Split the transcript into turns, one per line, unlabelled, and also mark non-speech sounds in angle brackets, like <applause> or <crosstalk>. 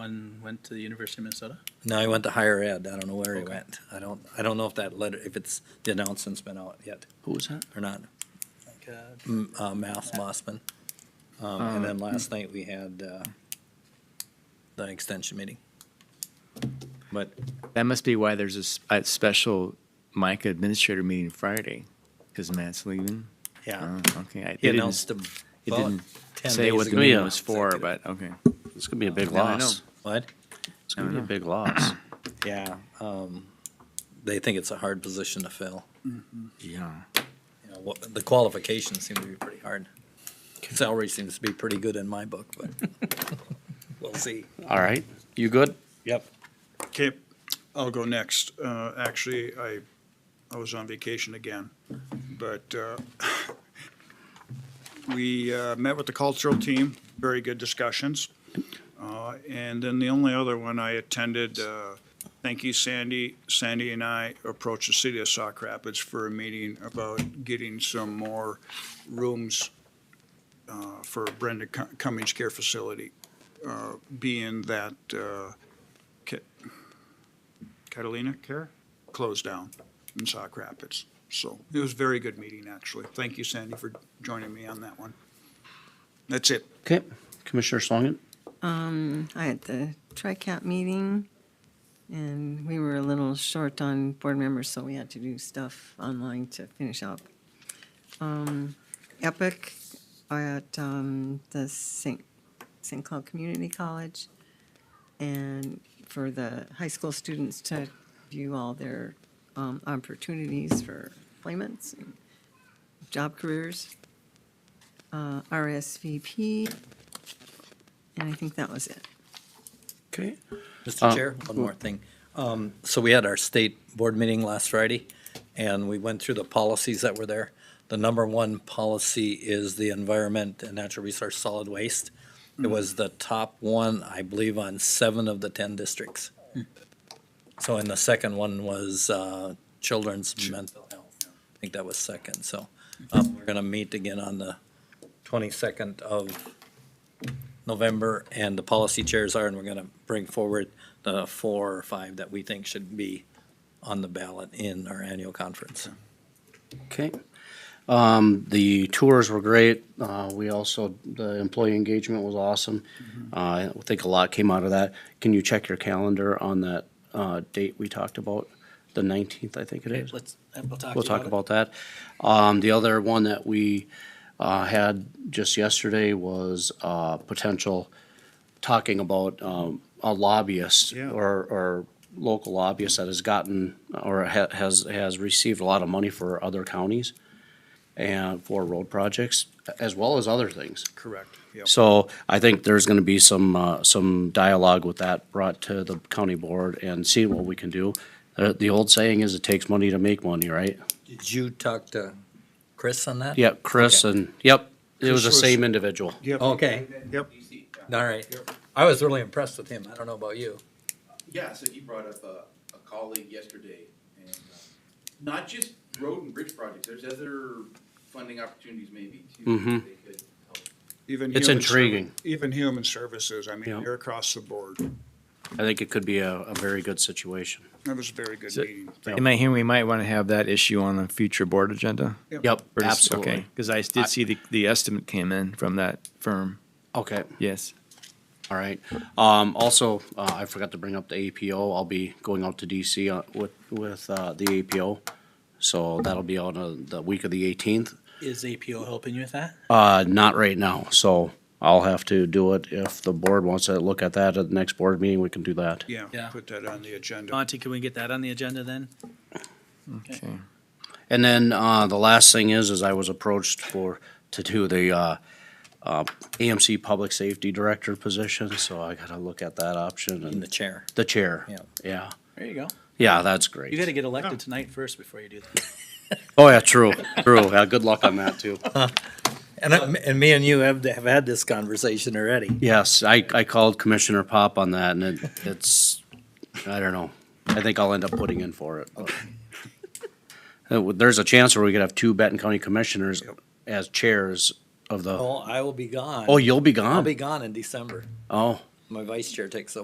One went to the University of Minnesota?
No, he went to higher ed. I don't know where he
Okay.
went. I don't, I don't know if that letter, if it's, the announcement's been out yet
Who was that?
or not.
Like, uh,
M- Uh, Math Mossman. Um, and then last night we had, uh, the extension meeting. But
That must be why there's a s- a, special MICA administrator meeting Friday, because Matt's leaving.
Yeah,
Oh, okay. I-
he
it didn't-
announced him.
It
about
didn't
10
say
days
what the
ago.
meeting
Yeah.
was for, but, okay.
It's gonna be a big
Yeah, Oh, I
loss.
know.
What?
It's gonna be a big
<clears throat>
loss.
Yeah, um, they think it's a hard position to fill.
Mm-hmm. Yeah.
You know, what, the qualifications seem to be pretty hard. Salary seems to be pretty good in my book, but <laughs> we'll see.
All right, you good?
Yep.
Okay, I'll go next. Uh, Actually, I, I was on vacation again, but uh, <laughs> we uh, met with the cultural team, very good discussions. Uh, And then the only other one I attended, uh, thank you, Sandy. Sandy and I approached the city of Sauk Rapids for a meeting about getting some more rooms uh, for Brenda Cum- Cummings Care Facility, uh, being that uh, Ca- Catalina Care closed down in Sauk Rapids. So it was a very good meeting, actually. Thank you, Sandy, for joining me on that one. That's it.
Okay, Commissioner Schlangen?
I had the TriCap meeting, and we were a little short on board members, so we had to do stuff online to finish up. Um, Epic at um, the St. St. Cloud Community College, and for the high school students to view all their um, opportunities for employments, and job careers, uh, RSVP, and I think that was it.
Okay.
Mr.
Uh,
Chair, one more thing. Um, so we had our state board meeting last Friday, and we went through the policies that were there. The number one policy is the environment and natural resource solid waste. It was the top one, I believe, on seven of the ten districts. So, and the second one was, uh, children's mental health. I think that was second, so, um, we're gonna meet again on the twenty-second of November, and the policy chairs are, and we're gonna bring forward the four or five that we think should be on the ballot in our annual conference.
Okay. Um, the tours were great. Uh, we also, the employee engagement was awesome.
Mm-hmm.
Uh, I think a lot came out of that. Can you check your calendar on that, uh, date we talked about? The nineteenth, I think it is.
Let's, we'll talk about it.
We'll talk about that. Um, the other one that we, uh, had just yesterday was, uh, potential talking about, um, a lobbyist
Yeah.
or, or local lobbyist that has gotten or ha- has, has received a lot of money for other counties and for road projects as well as other things.
Correct. Yep.
So I think there's gonna be some, uh, some dialogue with that brought to the county board and see what we can do. Uh, the old saying is it takes money to make money, right?
Did you talk to Chris on that?
Yep, Chris and, yep, it was the
Chris was-
same individual.
Yep.
Okay,
Yep.
all right. I was really impressed with him. I don't know about you.
Yeah, so he brought up a, a colleague yesterday, and uh, not just road and bridge projects, there's other funding opportunities maybe too. that
Mhm.
They could help.
Even
It's
human serv-
intriguing.
Even human services, I mean,
Yeah.
you're across the board.
I think it could be a, a very good situation.
That was a very good
So-
meeting.
Am I hearing we might want to have that issue on a future board agenda?
Yep, absolutely.
Because I did see the, the estimate came in from that firm,
Okay,
yes.
all right. Um, also, uh, I forgot to bring up the APO. I'll be going out to DC on- with, with, uh, the APO. So that'll be on uh, the week of the eighteenth.
Is APO helping you with that?
Uh, not right now, so I'll have to do it. If the board wants to look at that at the next board meeting, we can do that.
Yeah,
Yeah.
put that on the agenda.
Monty, can we get that on the agenda then?
Okay.
And then uh, the last thing is, is I was approached for to do the uh, uh, AMC Public Safety Director position, so I got to look at that option
In the
and
chair.
the chair.
Yeah.
Yeah,
There you go.
yeah, that's
You gotta
great.
get elected tonight first before you do that.
Oh yeah, true, true. Yeah, good luck on that too.
And, I- and me and you have, have had this conversation already.
Yes, I, I called Commissioner Pop on that, and it, it's I don't know. I think I'll end up putting in for it. but- <laughs> Uh, well, There's a chance where we could have two Benton County commissioners as chairs of the.
Oh, I will be gone.
Oh, you'll be gone.
I'll be gone in December.
oh.
My vice chair takes over.